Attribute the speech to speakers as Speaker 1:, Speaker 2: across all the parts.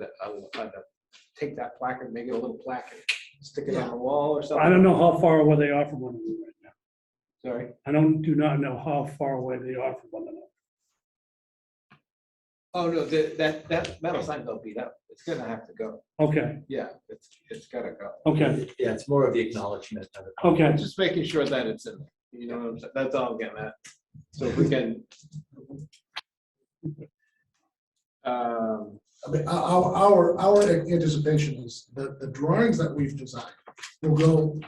Speaker 1: that I will try to take that placard, make it a little placard, stick it on the wall or something.
Speaker 2: I don't know how far away they are from one another right now.
Speaker 1: Sorry,
Speaker 2: I don't, do not know how far away they are from one another.
Speaker 1: oh, no, that, that, that metal sign don't beat up, it's gonna have to go,
Speaker 2: Okay,
Speaker 1: yeah, it's, it's gotta go.
Speaker 2: okay,
Speaker 3: Yeah, it's more of the acknowledgement of it.
Speaker 2: okay.
Speaker 1: I'm just making sure that it's in, there. you know, what I'm saying? that's all I'm getting at. So if we can. Um,
Speaker 4: I mean, our, our, our anticipation is that the drawings that we've designed will go,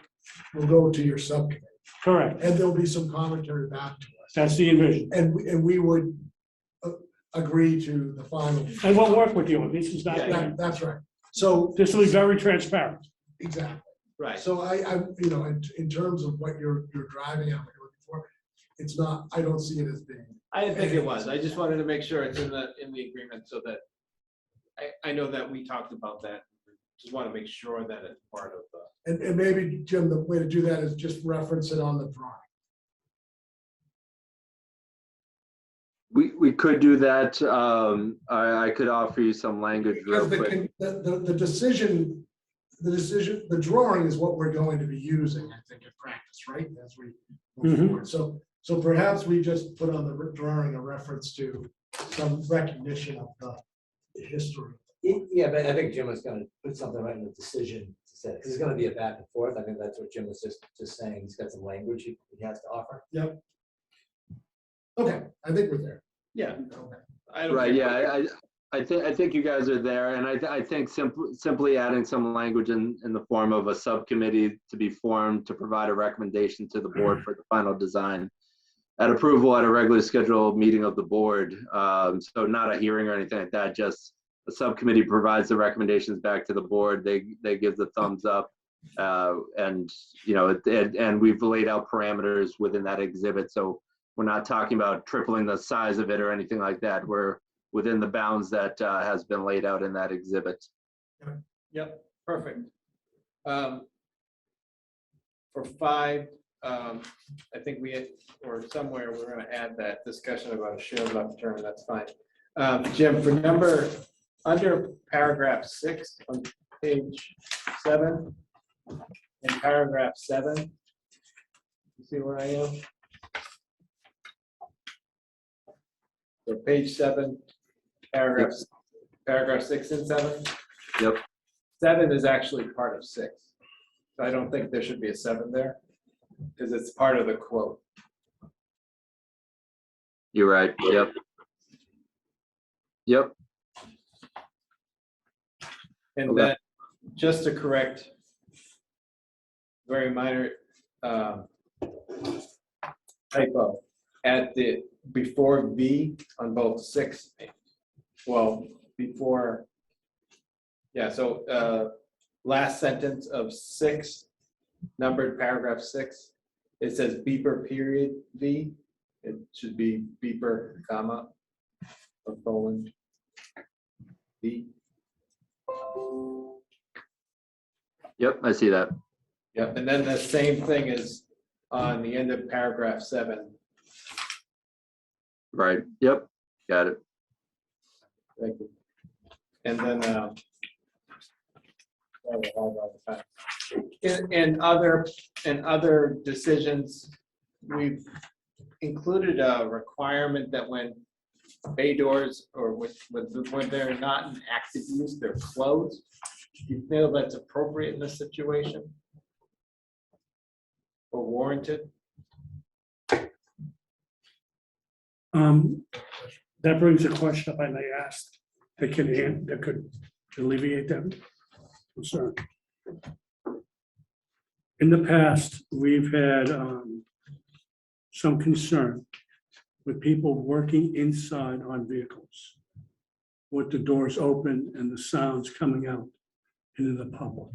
Speaker 4: will go to your subcommittee.
Speaker 2: Correct.
Speaker 4: And there'll be some commentary back to us.
Speaker 2: That's the envision.
Speaker 4: And, we- and we would uh, agree to the final.
Speaker 2: And we'll work with you. This is not,
Speaker 4: That- That's right. So,
Speaker 2: this will be very transparent.
Speaker 4: exactly.
Speaker 1: right,
Speaker 4: So I, I, you know, in, in terms of what you're, you're driving at, what you're looking for, it's not, I don't see it as being,
Speaker 1: I didn't think it was, I just wanted to make sure it's in the, in the agreement so that. I, I know that we talked about that, just want to make sure that it's part of the.
Speaker 4: and, and maybe, Jim, the way to do that is just reference it on the drawing.
Speaker 5: We, we could do that. Um, I, I could offer you some language
Speaker 4: Because
Speaker 5: real
Speaker 4: the,
Speaker 5: quick.
Speaker 4: con- the, the, the decision, the decision, the drawing is what we're going to be using, I think, in practice, right? As we move
Speaker 2: Mhm.
Speaker 4: forward. So, so perhaps we just put on the re- drawing a reference to some recognition of the the history.
Speaker 3: Yeah, but I think Jim was gonna put something right in the decision to say, because it's gonna be a back and forth. I think that's what Jim was just, just saying. He's got some language he he has to offer.
Speaker 4: Okay, I think we're there.
Speaker 1: Yeah.
Speaker 4: Okay.
Speaker 1: I don't
Speaker 5: Right,
Speaker 1: care.
Speaker 5: yeah, I, I- I think, I think you guys are there, and I, th- I think simply, simply adding some language in, in the form of a subcommittee to be formed to provide a recommendation to the
Speaker 1: Mm-hmm.
Speaker 5: board for the final design. At approval at a regularly scheduled meeting of the board, um, so not a hearing or anything like that, just the subcommittee provides the recommendations back to the board, they, they give the thumbs up. Uh, and, you know, it- and, and we've laid out parameters within that exhibit, so we're not talking about tripling the size of it or anything like that. We're within the bounds that uh, has been laid out in that exhibit.
Speaker 1: Yep, perfect. Um, For five, um, I think we, had- or somewhere, we're gonna add that discussion about a shared left turn, that's fine. Um, Jim, for number, under paragraph six on page seven, in paragraph seven, you see where I am? So page seven, paragraphs, paragraph six and seven? seven is actually part of six. So I don't think there should be a seven there, because it's part of the quote.
Speaker 5: You're right. Yep. Yep.
Speaker 1: And
Speaker 5: Okay.
Speaker 1: then, just to correct, very minor um, typo, at the, before V on both six, well, before, yeah, so uh, last sentence of six, numbered paragraph six, it says beeper period V, it should be beeper comma of Poland. V.
Speaker 5: Yep. I see that.
Speaker 1: Yep, and then the same thing is on the end of paragraph seven.
Speaker 5: Right. Yep. Got it.
Speaker 1: Thank you. And then, uh, sorry, I lied about the fact. in, in other, in other decisions, we've included a requirement that when bay doors or with, with, when they're not in active use, they're closed. Do you feel that's appropriate in this situation? Or warranted?
Speaker 2: Um, that brings a question up I may ask that could, an- that could alleviate that concern. In the past, we've had, um, some concern with people working inside on vehicles. With the doors open and the sounds coming out into the public.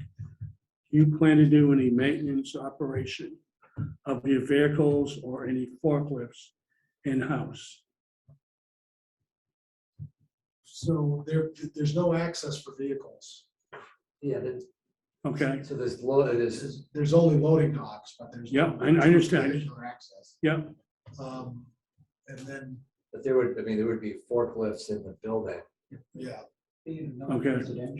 Speaker 2: You plan to do any maintenance operation of your vehicles or any forklifts in-house?
Speaker 4: So there, there's no access for vehicles.
Speaker 3: Yeah, that's,
Speaker 2: Okay,
Speaker 3: so there's, lo- there's,
Speaker 4: There's, there's only loading docks, but there's. no-
Speaker 2: Yeah, I- I understand.
Speaker 4: Vehicular access.
Speaker 2: yeah,
Speaker 4: Um, And then,
Speaker 3: but there would, I mean, there would be forklifts in the building.
Speaker 4: yeah,
Speaker 2: Okay.